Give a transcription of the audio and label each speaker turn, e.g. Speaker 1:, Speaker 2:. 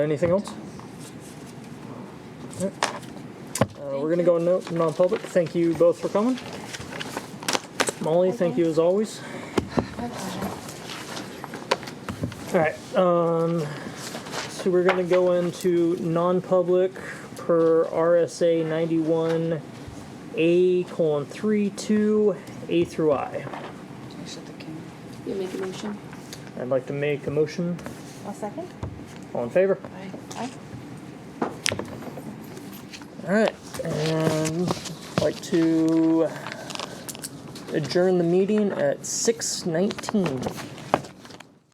Speaker 1: Anything else? Alright. Uh, we're gonna go in no- non-public. Thank you both for coming. Molly, thank you as always. Alright, um, so we're gonna go into non-public per RSA ninety-one A colon three two A through I.
Speaker 2: You make a motion?
Speaker 1: I'd like to make a motion.
Speaker 3: I'll second.
Speaker 1: All in favor?
Speaker 3: Aye.
Speaker 1: All right, and I'd like to adjourn the meeting at six nineteen.